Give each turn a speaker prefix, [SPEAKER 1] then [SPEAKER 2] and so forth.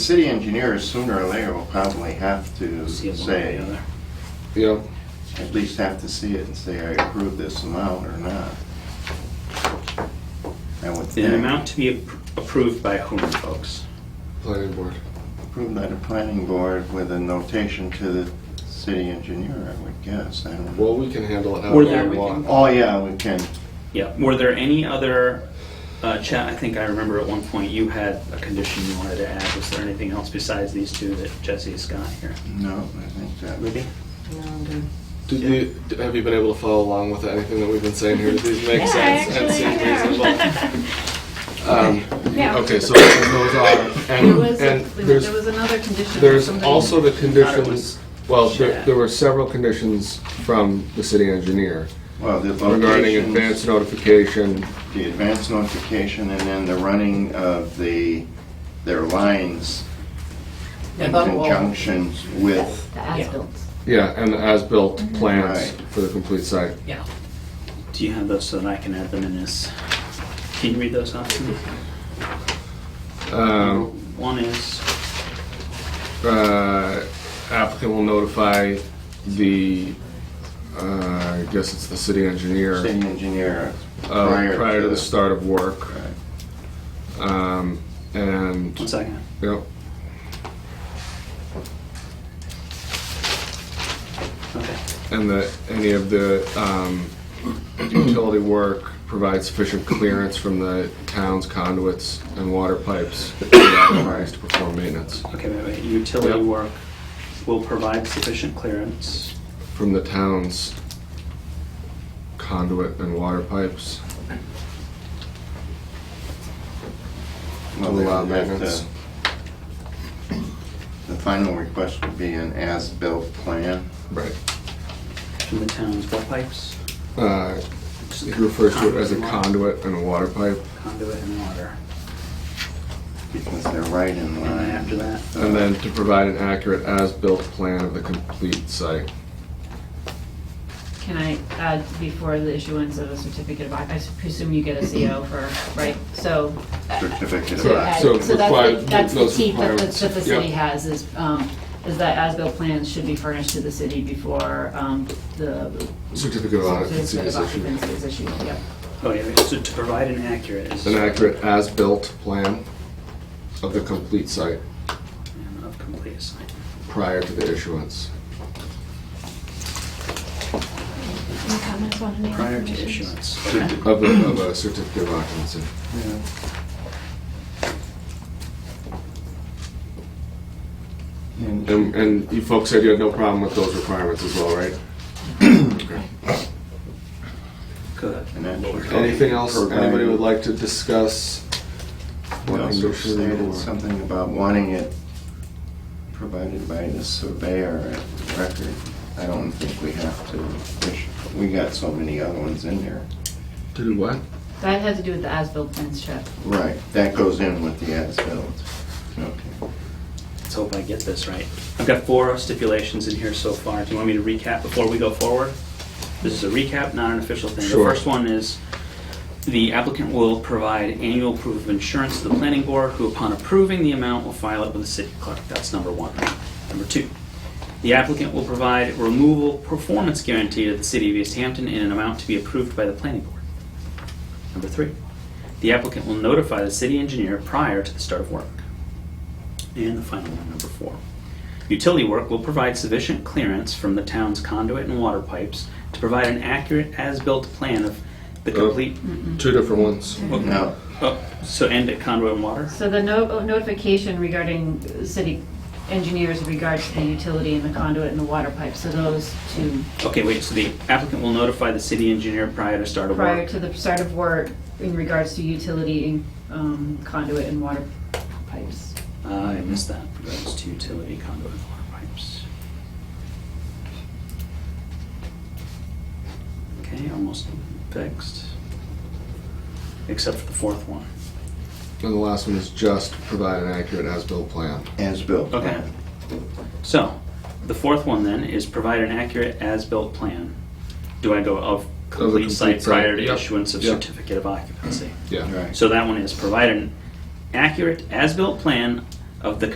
[SPEAKER 1] City engineers sooner or later will probably have to
[SPEAKER 2] See it one way or
[SPEAKER 1] say,
[SPEAKER 2] the other.
[SPEAKER 3] Yep.
[SPEAKER 1] at least have to see it and say, I approve this amount or not. I would
[SPEAKER 2] An
[SPEAKER 1] think,
[SPEAKER 2] amount to be ap- approved by whom, folks?
[SPEAKER 3] Planning board.
[SPEAKER 1] approved by the planning board with a notation to the city engineer, I would guess, I don't know.
[SPEAKER 3] Well, we can handle it
[SPEAKER 2] Or
[SPEAKER 3] however
[SPEAKER 2] there
[SPEAKER 3] we
[SPEAKER 2] we
[SPEAKER 3] want.
[SPEAKER 1] Oh, yeah, we can,
[SPEAKER 2] Yeah, were there any other, uh, Chad, I think I remember at one point you had a condition you wanted to add. Was there anything else besides these two that Jesse has got here?
[SPEAKER 1] no, I think that would
[SPEAKER 2] Libby?
[SPEAKER 4] No, I'm good.
[SPEAKER 3] Did you, d- have you been able to follow along with anything that we've been saying here? Did these make sense and seem reasonable? Um,
[SPEAKER 5] Yeah.
[SPEAKER 3] Okay, so those are,
[SPEAKER 5] There
[SPEAKER 3] and,
[SPEAKER 5] was,
[SPEAKER 3] and
[SPEAKER 5] there was
[SPEAKER 3] there's,
[SPEAKER 5] another condition.
[SPEAKER 3] there's
[SPEAKER 5] Somebody-
[SPEAKER 3] also the
[SPEAKER 2] was
[SPEAKER 3] conditions, well, there,
[SPEAKER 2] Shad.
[SPEAKER 3] there were several conditions from the city engineer
[SPEAKER 1] Well, the
[SPEAKER 3] regarding
[SPEAKER 1] locations,
[SPEAKER 3] advance notification,
[SPEAKER 1] the advance notification, and then the running of the, their lines in
[SPEAKER 4] above all-
[SPEAKER 1] conjunction with
[SPEAKER 5] The as-built.
[SPEAKER 3] yeah, and the as-built
[SPEAKER 5] Mm-hmm.
[SPEAKER 3] plans
[SPEAKER 1] Right.
[SPEAKER 3] for the complete site.
[SPEAKER 4] Yeah.
[SPEAKER 2] Do you have those so that I can add them in as, can you read those off to me?
[SPEAKER 3] Um,
[SPEAKER 2] One is,
[SPEAKER 3] uh, applicant will notify the, uh, I guess it's the city engineer,
[SPEAKER 1] city engineer
[SPEAKER 3] uh,
[SPEAKER 1] prior to...
[SPEAKER 3] prior to the start of work.
[SPEAKER 1] Right.
[SPEAKER 3] Um, And,
[SPEAKER 2] one second.
[SPEAKER 3] yep,
[SPEAKER 2] Okay.
[SPEAKER 3] and that any of the um, utility work provides sufficient clearance from the town's conduits and water pipes that are authorized to perform maintenance.
[SPEAKER 2] Okay, wait, wait. Utility
[SPEAKER 3] Yep.
[SPEAKER 2] work will provide sufficient clearance.
[SPEAKER 3] From the town's conduit and water pipes.
[SPEAKER 1] Well, they would have to- The final request would be an as-built plan.
[SPEAKER 3] Right.
[SPEAKER 2] From the town's what pipes?
[SPEAKER 3] Uh, He refers to it as a conduit and a water pipe.
[SPEAKER 2] Conduit and water.
[SPEAKER 1] Because they're right in
[SPEAKER 2] And
[SPEAKER 1] line.
[SPEAKER 2] then after that,
[SPEAKER 3] And then to provide an accurate as-built plan of the complete site.
[SPEAKER 5] Can I add, before the issuance of a certificate of, oc- I s- presume you get a CO for, right? So,
[SPEAKER 1] Certificate of
[SPEAKER 5] to add-
[SPEAKER 3] So
[SPEAKER 5] so
[SPEAKER 3] it
[SPEAKER 5] that's the,
[SPEAKER 3] requires
[SPEAKER 5] that's the
[SPEAKER 3] those
[SPEAKER 5] teeth that the,
[SPEAKER 3] requirements.
[SPEAKER 5] that the city
[SPEAKER 3] Yep.
[SPEAKER 5] has is, um, is that as-built plans should be furnished to the city before, um, the.
[SPEAKER 3] Certificate of occupancy
[SPEAKER 5] certificate
[SPEAKER 3] is
[SPEAKER 5] of
[SPEAKER 3] issued.
[SPEAKER 5] occupancy is issued, yep.
[SPEAKER 2] oh yeah, so to provide an accurate is.
[SPEAKER 3] An accurate as-built plan of the complete site
[SPEAKER 2] and Of complete sign.
[SPEAKER 3] prior to the issuance.
[SPEAKER 5] Any comments on any
[SPEAKER 2] Prior to
[SPEAKER 5] issues?
[SPEAKER 2] issuance. Okay.
[SPEAKER 3] Of a, of a certificate of occupancy.
[SPEAKER 1] And
[SPEAKER 3] And, and you folks said you had no problem with those requirements as well, right? Okay.
[SPEAKER 2] Good.
[SPEAKER 1] And then-
[SPEAKER 2] Lord.
[SPEAKER 3] Anything else
[SPEAKER 1] Provide-
[SPEAKER 3] anybody would like to discuss?
[SPEAKER 1] they also
[SPEAKER 3] Condition or-
[SPEAKER 1] stated something about wanting it provided by the surveyor at record. I don't think we have to, we should- we got so many other ones in there.
[SPEAKER 3] To do what?
[SPEAKER 5] That had to do with the as-built plans, Chad.
[SPEAKER 1] Right, that goes in with the as-built. Okay.
[SPEAKER 2] Let's hope I get this right. I've got four stipulations in here so far. Do you want me to recap before we go forward? This is a recap, not an official thing. The
[SPEAKER 3] Sure.
[SPEAKER 2] first one is the applicant will provide annual proof of insurance to the planning board, who upon approving the amount will file it with the city clerk. That's number one. Number two, the applicant will provide removal performance guarantee to the city of East Hampton in an amount to be approved by the planning board. Number three, the applicant will notify the city engineer prior to the start of work. And the final one, number four. Utility work will provide sufficient clearance from the town's conduit and water pipes to provide an accurate as-built plan of the complete,
[SPEAKER 3] Two different ones.
[SPEAKER 1] Now,
[SPEAKER 2] oh, so end at conduit and water?
[SPEAKER 5] So the no- uh, notification regarding uh, city engineers regards to the utility and the conduit and the water pipe, so those two,
[SPEAKER 2] Okay, wait, so the applicant will notify the city engineer prior to start of
[SPEAKER 5] prior
[SPEAKER 2] work?
[SPEAKER 5] to the start of work in regards to utility and um, conduit and water pipes.
[SPEAKER 2] Uh, I missed that, regards to utility conduit and water pipes. Okay, almost fixed. Except for the fourth one.
[SPEAKER 3] And the last one is just provide an accurate as-built plan.
[SPEAKER 1] as-built.
[SPEAKER 2] Okay. So, the fourth one then is provide an accurate as-built plan. Do I go of complete
[SPEAKER 3] complete
[SPEAKER 2] site
[SPEAKER 3] site,
[SPEAKER 2] prior to
[SPEAKER 3] yep,
[SPEAKER 2] issuance of
[SPEAKER 3] yep.
[SPEAKER 2] certificate of occupancy?
[SPEAKER 3] Yeah.
[SPEAKER 1] Right.
[SPEAKER 2] So that one is provide an accurate as-built plan of the